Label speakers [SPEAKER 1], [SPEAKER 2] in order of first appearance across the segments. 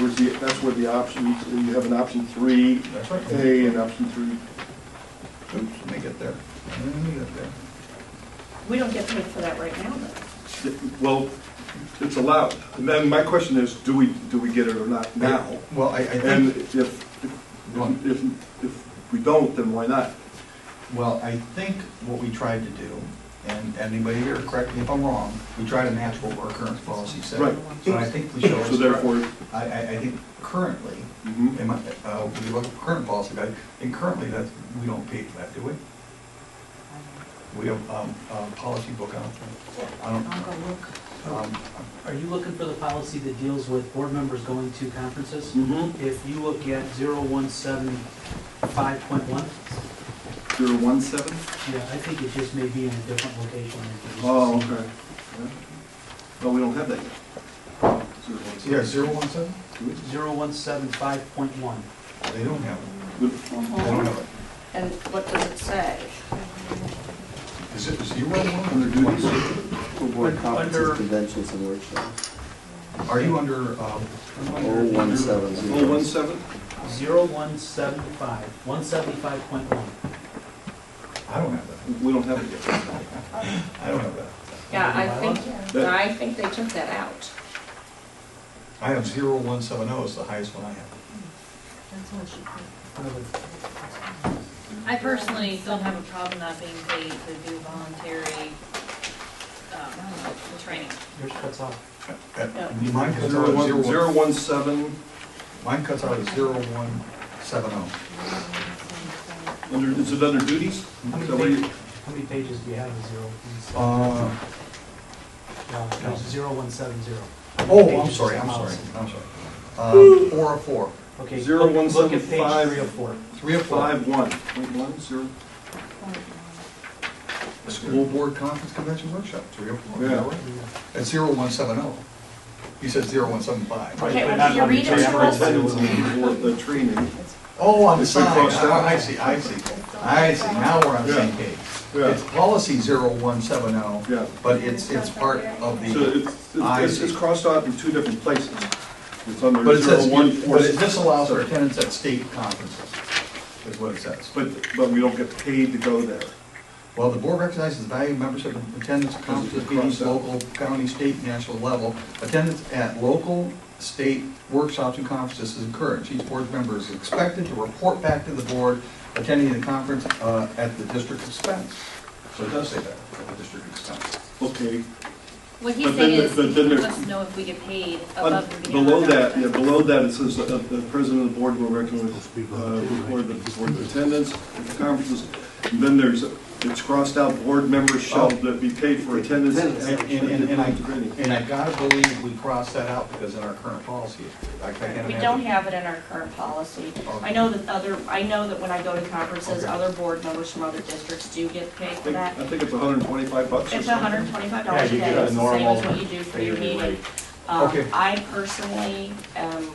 [SPEAKER 1] was the, that's where the option, you have an option three
[SPEAKER 2] That's right.
[SPEAKER 1] A and option three.
[SPEAKER 2] Oops, let me get there. Let me get there.
[SPEAKER 3] We don't get paid for that right now, though.
[SPEAKER 1] Well, it's allowed. And then my question is, do we, do we get it or not now?
[SPEAKER 2] Well, I, I
[SPEAKER 1] And
[SPEAKER 2] think,
[SPEAKER 1] if, if, if, if we don't, then why not?
[SPEAKER 2] well, I think what we tried to do, and anybody here, correct me if I'm wrong, we tried to match what our current policy said.
[SPEAKER 1] Right.
[SPEAKER 2] So I think we should.
[SPEAKER 1] So therefore,
[SPEAKER 2] I, I, I think currently,
[SPEAKER 1] Mhm.
[SPEAKER 2] in my, uh, when you look at current policy guide, and currently that, we don't pay for that, do we? We have, um, um, policy book out. I don't,
[SPEAKER 3] I'll go look.
[SPEAKER 2] um,
[SPEAKER 4] Are you looking for the policy that deals with board members going to conferences?
[SPEAKER 1] Mhm.
[SPEAKER 4] If you look at 0175.1,
[SPEAKER 1] zero one seven?
[SPEAKER 4] yeah, I think it just may be in a different location. than it is.
[SPEAKER 1] Oh, okay. Yeah. No, we don't have that yet. Zero one seven.
[SPEAKER 2] yeah, zero one seven,
[SPEAKER 4] 0175.1.
[SPEAKER 2] they don't have it,
[SPEAKER 1] We-
[SPEAKER 2] they don't have
[SPEAKER 3] Mhm.
[SPEAKER 2] it.
[SPEAKER 3] And what does it say?
[SPEAKER 2] Is it zero one
[SPEAKER 1] Under
[SPEAKER 2] or do
[SPEAKER 1] duties?
[SPEAKER 5] For board
[SPEAKER 4] Un-
[SPEAKER 5] conferences,
[SPEAKER 4] under-
[SPEAKER 5] conventions, and workshops.
[SPEAKER 2] Are you under, um?
[SPEAKER 5] Oh, one seven
[SPEAKER 1] Oh,
[SPEAKER 5] zero.
[SPEAKER 1] one seven?
[SPEAKER 4] 0175, 175.1.
[SPEAKER 2] I don't have that.
[SPEAKER 1] We don't have it yet.
[SPEAKER 2] I don't have that.
[SPEAKER 3] Yeah, I think,
[SPEAKER 1] That-
[SPEAKER 3] I think they took that out.
[SPEAKER 2] I have zero one seven oh is the highest one I have.
[SPEAKER 6] I personally don't have a problem not being paid to do voluntary, um, training.
[SPEAKER 4] Yours cuts off.
[SPEAKER 2] That-
[SPEAKER 3] Yeah.
[SPEAKER 2] Mine cuts out
[SPEAKER 1] Zero
[SPEAKER 2] at
[SPEAKER 1] one,
[SPEAKER 2] zero
[SPEAKER 1] zero
[SPEAKER 2] one,
[SPEAKER 1] one seven,
[SPEAKER 2] mine cuts out at zero one seven oh.
[SPEAKER 1] under, is it under duties?
[SPEAKER 4] How
[SPEAKER 1] Is
[SPEAKER 2] Mhm.
[SPEAKER 4] many
[SPEAKER 1] that what you-
[SPEAKER 4] pages, how many pages do you have in 017?
[SPEAKER 2] Uh,
[SPEAKER 4] No, there's 0170.
[SPEAKER 2] oh, I'm sorry, I'm sorry, I'm sorry. Um, four of four,
[SPEAKER 4] Okay,
[SPEAKER 1] Zero
[SPEAKER 4] look-
[SPEAKER 1] one
[SPEAKER 4] look
[SPEAKER 1] seven
[SPEAKER 4] at page
[SPEAKER 1] five.
[SPEAKER 4] three oh of four.
[SPEAKER 2] three of four.
[SPEAKER 1] Five one, point one, zero,
[SPEAKER 2] School board conference convention workshop, three of four.
[SPEAKER 1] Yeah.
[SPEAKER 2] At zero one seven oh. He said zero one seven five.
[SPEAKER 3] Okay,
[SPEAKER 4] But
[SPEAKER 3] well,
[SPEAKER 4] not
[SPEAKER 3] can you
[SPEAKER 4] on the
[SPEAKER 3] read it
[SPEAKER 4] page
[SPEAKER 3] to
[SPEAKER 4] where
[SPEAKER 3] us?
[SPEAKER 1] attendance and board, the training.
[SPEAKER 2] Oh, on the
[SPEAKER 1] It's been
[SPEAKER 2] side,
[SPEAKER 1] crossed out.
[SPEAKER 2] I see, I see, I see, now we're on the same
[SPEAKER 1] Yeah.
[SPEAKER 2] page.
[SPEAKER 1] Yeah.
[SPEAKER 2] It's policy zero one seven oh,
[SPEAKER 1] Yeah.
[SPEAKER 2] but it's, it's part of
[SPEAKER 1] So
[SPEAKER 2] the,
[SPEAKER 1] it's,
[SPEAKER 2] I
[SPEAKER 1] it's, it's
[SPEAKER 2] see.
[SPEAKER 1] crossed out in two different places. It's under
[SPEAKER 2] but it
[SPEAKER 1] zero
[SPEAKER 2] says,
[SPEAKER 1] one four.
[SPEAKER 2] but it disallows for attendance at state conferences, is what it says.
[SPEAKER 1] But, but we don't get paid to go there.
[SPEAKER 2] While the board recognizes the value of membership and attendance at conferences, meetings, local, county, state, and national level, attendance at local, state workshops and conferences is encouraged. Each board member is expected to report back to the board attending the conference uh, at the district expense. So it does say that, at the district expense.
[SPEAKER 1] Okay, But
[SPEAKER 6] What he's
[SPEAKER 1] then
[SPEAKER 6] saying
[SPEAKER 1] there-
[SPEAKER 6] is,
[SPEAKER 1] but
[SPEAKER 6] he
[SPEAKER 1] then
[SPEAKER 6] wants
[SPEAKER 1] there-
[SPEAKER 6] us to know if we get paid
[SPEAKER 1] Uh,
[SPEAKER 6] above and beyond.
[SPEAKER 1] Below that,
[SPEAKER 6] our-
[SPEAKER 1] yeah, below that, it says uh, the president of the board will recommend, uh, record the board attendance at conferences. And Then there's, it's crossed out, board members shall
[SPEAKER 2] Oh.
[SPEAKER 1] be paid for attendance.
[SPEAKER 2] And,
[SPEAKER 1] at-
[SPEAKER 2] and, and I,
[SPEAKER 1] training.
[SPEAKER 2] and I gotta believe we crossed that out because in our current policy, I I can't
[SPEAKER 3] We
[SPEAKER 2] imagine.
[SPEAKER 3] don't have it in our current policy. I know that other, I know that when I go to conferences,
[SPEAKER 2] Okay.
[SPEAKER 3] other board members from other districts do get paid
[SPEAKER 1] I
[SPEAKER 3] for
[SPEAKER 1] think-
[SPEAKER 3] that.
[SPEAKER 1] I think it's hundred and twenty-five bucks or
[SPEAKER 3] It's
[SPEAKER 1] something.
[SPEAKER 3] hundred and twenty-five dollars a day, it's the same as what you do for your meeting. Um,
[SPEAKER 2] Okay.
[SPEAKER 3] I personally, um,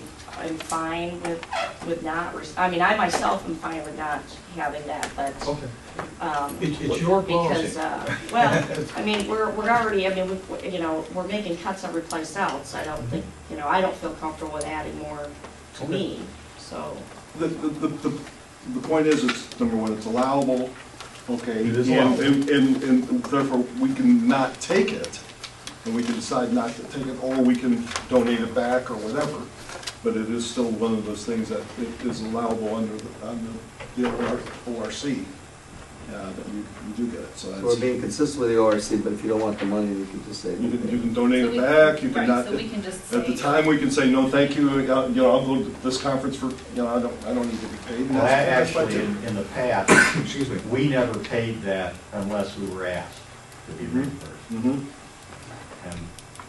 [SPEAKER 3] am fine with, with not, rec- I mean, I myself am fine with not having that, but,
[SPEAKER 2] Okay,
[SPEAKER 3] um.
[SPEAKER 2] It's- it's your
[SPEAKER 3] Because,
[SPEAKER 2] policy.
[SPEAKER 3] uh, well, I mean, we're, we're already, I mean, we, you know, we're making cuts every place else, I don't think, you know, I don't feel comfortable with adding more to
[SPEAKER 2] Okay.
[SPEAKER 3] me, so.
[SPEAKER 1] The, the, the, the- the point is, it's, number one, it's allowable, okay?
[SPEAKER 2] It is
[SPEAKER 1] and-
[SPEAKER 2] allowable.
[SPEAKER 1] And, and, and therefore, we can not take it, and we can decide not to take it, or we can donate it back or whatever. But it is still one of those things that it is allowable under, the- under the ORC, uh, that you, you do get it, so
[SPEAKER 5] So We're
[SPEAKER 1] that's,
[SPEAKER 5] being consistent with the ORC, but if you don't want the money, you can just say.
[SPEAKER 1] you can, you
[SPEAKER 5] no.
[SPEAKER 1] can donate
[SPEAKER 6] So
[SPEAKER 1] it
[SPEAKER 6] we-
[SPEAKER 1] back, you can
[SPEAKER 6] right,
[SPEAKER 1] not.
[SPEAKER 6] so we can just
[SPEAKER 1] At the
[SPEAKER 6] say-
[SPEAKER 1] time, we can say, no, thank you, uh, you know, I'll go to this conference for, you know, I don't, I don't need to be paid. and
[SPEAKER 7] Well, that
[SPEAKER 1] that's- that's
[SPEAKER 7] actually,
[SPEAKER 1] budget.
[SPEAKER 7] in, in the past,
[SPEAKER 2] excuse me.
[SPEAKER 7] we never paid that unless we were asked to be reimbursed.
[SPEAKER 1] Mhm.
[SPEAKER 7] And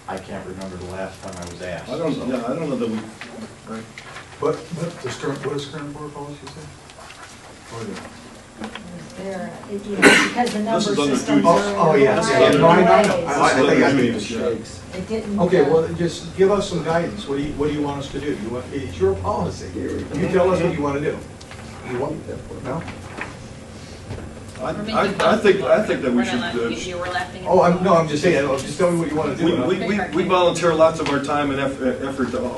[SPEAKER 7] I can't remember the last time I was asked.
[SPEAKER 1] I don't,
[SPEAKER 7] so-
[SPEAKER 1] yeah, I don't know that we, right,
[SPEAKER 2] What, what does current, what does current board policy say?
[SPEAKER 7] Oh,
[SPEAKER 2] What is it?
[SPEAKER 8] there, it- you know, because the
[SPEAKER 1] This
[SPEAKER 8] number
[SPEAKER 1] is under
[SPEAKER 8] systems
[SPEAKER 1] duties.
[SPEAKER 8] are.
[SPEAKER 2] Oh, oh, yeah,
[SPEAKER 1] yeah, yeah.
[SPEAKER 8] in
[SPEAKER 1] No, I
[SPEAKER 2] know.
[SPEAKER 8] ways.
[SPEAKER 2] I- I think I can-
[SPEAKER 5] Shakes.
[SPEAKER 8] It didn't.
[SPEAKER 2] Okay,
[SPEAKER 8] uh,
[SPEAKER 2] well, then just give us some guidance. What do you, what do you want us to do? You want, it's your policy. You tell us what you want to do. You want, no?
[SPEAKER 1] I,
[SPEAKER 6] We're making
[SPEAKER 1] I, I think, I think that we
[SPEAKER 6] We're
[SPEAKER 1] should,
[SPEAKER 6] not laughing
[SPEAKER 1] uh,
[SPEAKER 6] at you, we're laughing at.
[SPEAKER 2] Oh, I'm, no, I'm just saying, just tell me what you want to do.
[SPEAKER 1] we,
[SPEAKER 2] and I'll-
[SPEAKER 1] we- we, we volunteer lots of our time and eff- effort to